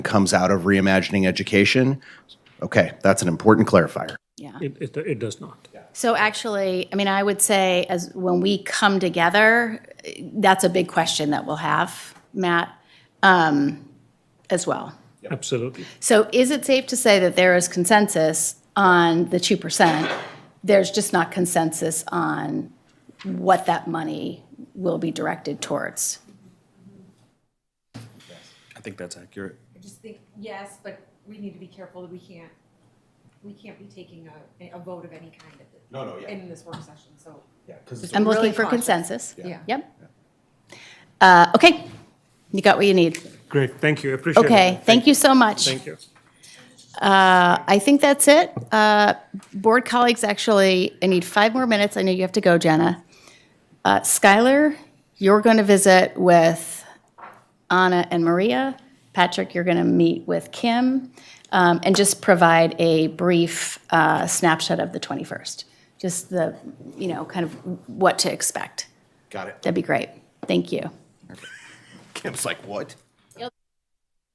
comes out of reimagining education. Okay, that's an important clarifier. Yeah. It, it, it does not. So actually, I mean, I would say as, when we come together, eh, that's a big question that we'll have, Matt, um, as well. Absolutely. So is it safe to say that there is consensus on the 2%? There's just not consensus on what that money will be directed towards? I think that's accurate. just think, yes, but we need to be careful that we can't, we can't be taking a, a vote of any kind at the. No, no, yeah. In this work session, so. I'm looking Really for cautious. consensus. Yeah. Yep. Uh, Okay, you got what you need. Great, thank you, appreciate it. Okay, thank you so much. Thank you. I think that's it. Uh, Board colleagues, actually, I need five more minutes. I know you have to go, Jenna. Uh, Skylar, you're going to visit with Anna and Maria. Patrick, you're going to meet with Kim um, and just provide a brief uh, snapshot of the 21st. Just the, you know, kind of what to expect. Got it. That'd be great. Thank you. Kim's like, what?